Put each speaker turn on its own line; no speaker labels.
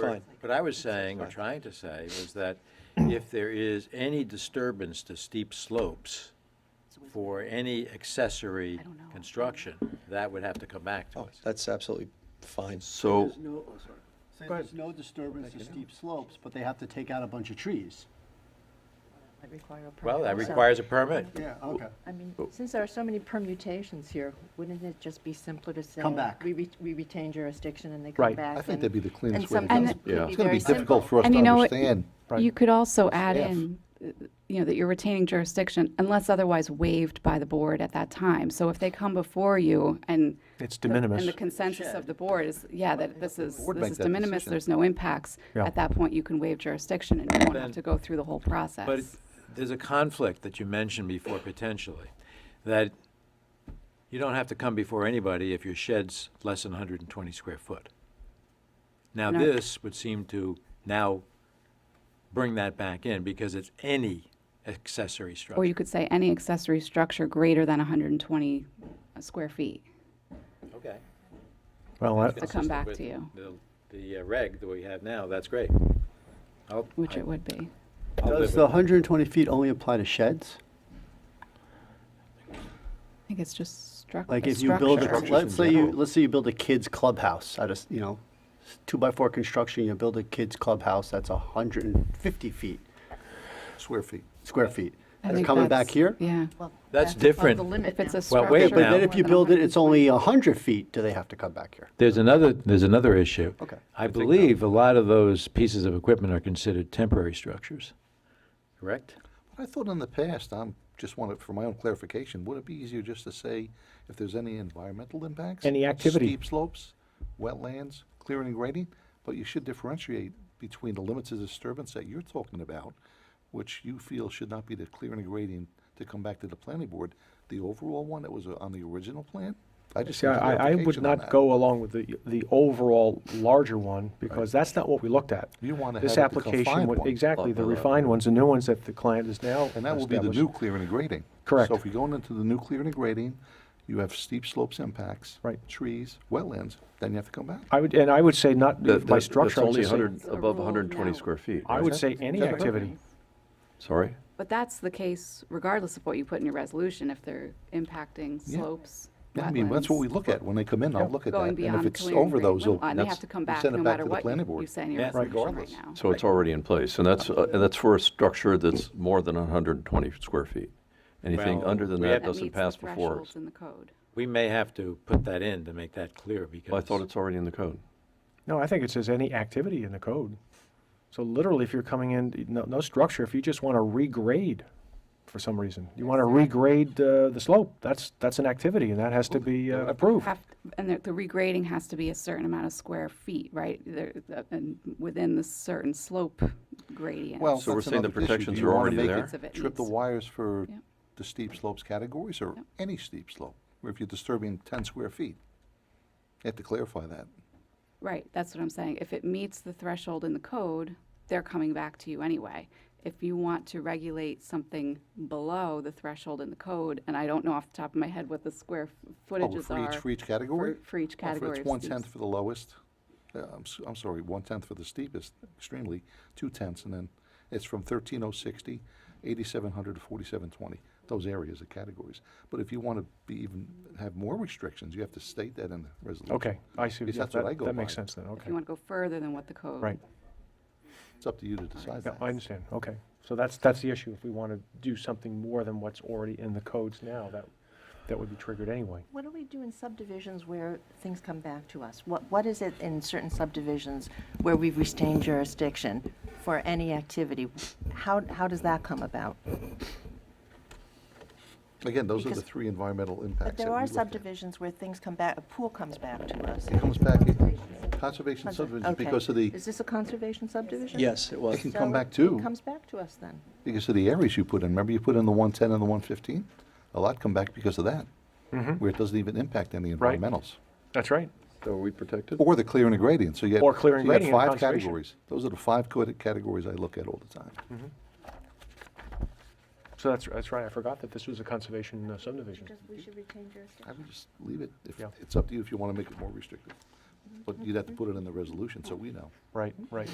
Fine.
What I was saying, or trying to say, was that if there is any disturbance to steep slopes for any accessory construction, that would have to come back to
Oh,
us.
that's absolutely fine.
So,
There's no, oh, sorry. Say there's no disturbance to steep slopes, but they have to take out a bunch of trees.
That require a permit.
Well, that
So,
requires a permit.
Yeah, okay.
I mean, since there are so many permutations here, wouldn't it just be simpler to say?
Come back.
We, re- we retain jurisdiction and they come
Right.
back.
I think
and-
that'd be the
and
cleanest way to
sometimes
go.
it could
Yeah.
be
It's going to
very
be difficult
simple.
for us
And
to
you know what?
understand.
You could also add
Staff.
in, uh, you know, that you're retaining jurisdiction unless otherwise waived by the board at that time. So if they come before you and.
It's
the- And the consensus of the board is, yeah, that this is,
Board
this
make
is
that
de minimis,
decision.
there's no impacts.
Yeah.
At that point, you can waive jurisdiction and you won't
Then-
have to go through the whole process.
But there's a conflict that you mentioned before potentially, that you don't have to come before anybody if your shed's less than 120 square foot. Now,
No.
this would seem to now bring that back in because it's any accessory structure.
Or you could say any accessory structure greater than 120 square feet.
Okay.
Well, I-
to come back to you,
The uh, reg that we have now, that's great. I'll-
which
I-
it would be.
I'll live
Does
with
the
it.
120 feet only apply to sheds?
I think it's just struc-
Like
a
if you build, a-
structure.
let's say you, let's say you build a kid's clubhouse out of, s- you know, s- two by four construction, you build a kid's clubhouse that's 150 feet,
Square feet.
square feet.
I
It's
think
coming back
that's-
here?
Yeah.
Well,
That's
above
different.
The limit
If it's
now.
a
Well,
structure.
wait
Okay, but
now.
then if you build it, it's only 100 feet, do they have to come back here?
There's another, there's another issue.
Okay.
I believe a lot of those pieces of equipment are considered temporary structures, correct?
I thought in the past, I'm, just wanted, for my own clarification, would it be easier just to say if there's any environmental impacts?
Any activity.
Steep slopes, wetlands, clearing and grading, but you should differentiate between the limits of disturbance that you're talking about, which you feel should not be the clearing and grading to come back to the planning board, the overall one that was uh, on the original plan? I just
See,
need
I, I- I would
clarification on
not
that.
go along with the, the overall larger one, because that's not what we looked at.
You wanna
This
have it the
application
confined
would-
one. uh,
Exactly, the
Well, well,
refined ones, the new ones that the client is now
And that will be the new
established.
clearing and grading.
Correct.
So if you're going into the new clearing and grading, you have steep slopes impacts.
Right.
Trees, wetlands, then you have to come back.
I would, and I would say not,
that-
by
that-
structure, I
That's
would
only
just say-
100,
It's a
above
rule
120
now.
square feet.
I
right?
would say any
Is that right?
activity.
Sorry?
But that's the case regardless of what you put in your resolution, if they're impacting
Yeah.
slopes,
Yeah, I mean, that's what we
wetlands,
look at when they come in, I'll look at that.
going
And if
beyond
it's
clearing and
over
grading.
those, you'll-
And they have
that's-
to come
you
back
send it
no
back
matter
to the
what
planning
you-
board.
you say in your
Yeah.
resolution right
Regardless.
now.
So it's already in place, and that's, uh, and that's for a structure that's more than 120 square feet. Anything
Well,
under than
we
that
have-
That
doesn't
meets the
pass before
thresholds
us.
in the code.
We may have to put that in to make that clear because.
Well, I thought it's already in the code.
No, I think it says any activity in the code. So literally, if you're coming in, no, no structure, if you just want to regrade for some reason, you want to regrade uh, the slope, that's, that's an activity, and that has to be uh, approved.
Have- And the the regrading has to be a certain amount of square feet, right? There- the- And within the certain slope gradient.
Well,
So we're
that's
saying the
another issue. Do
protections
you
are
wanna
already
make it
there?
Of it
Trip the
needs-
wires for
Yep.
the steep slopes categories or any steep slope, or if you're disturbing ten square feet. You have to clarify that.
Right, that's what I'm saying. If it meets the threshold in the code, they're coming back to you anyway. If you want to regulate something below the threshold in the code, and I don't know off the top of my head what the square f-
Oh,
footages
For
are.
each, for each category?
for- for each
Oh,
category of
It's one-tenth
steeps.
for the lowest, uh, I'm, s- I'm sorry, one-tenth for the steepest, extremely, two-tenths, and then it's from 13060, 8700 to 4720, those areas are categories. But if you want to be even, have more restrictions, you have to state that in the resolution.
Okay, I see,
Because
yeah,
that's what I
that,
go
that makes
by.
sense then,
If
okay.
you want to go further than what the code.
Right,
It's up to you to decide
yeah,
that.
I understand, okay. So that's, that's the issue, if we want to do something more than what's already in the codes now, that, that would be triggered anyway.
What do we do in subdivisions where things come back to us? What, what is it in certain subdivisions where we've retained jurisdiction for any activity? How, how does that come about?
Again, those are the
Because-
three environmental impacts.
But there
that we
are
looked at.
subdivisions where things come back, a pool comes back to us.
It comes back, in conservation
Conser-
subdivision,
okay.
because of the,
Is this a conservation subdivision?
Yes, it was.
It can
So
come back
it-
too.
It comes back to us then.
because of the areas you put in. Remember you put in the 110 and the 115? A lot come back because of that, where it doesn't even impact any
Mm-hmm. Right.
environmentals.
That's right.
So are we protected?
Or the clearing and gradient, so you had.
Or clearing
so you had
gradient and
five
conservation. Mm.
categories. Those are the five co- categories I look at all the time.
So that's, that's right, I forgot that this was a conservation uh, subdivision.
we should retain jurisdiction.
I would just leave it, if,
Yeah.
it's up to you if you want to make it more restrictive. But you'd have to put it in the resolution, so we know.
Right, right.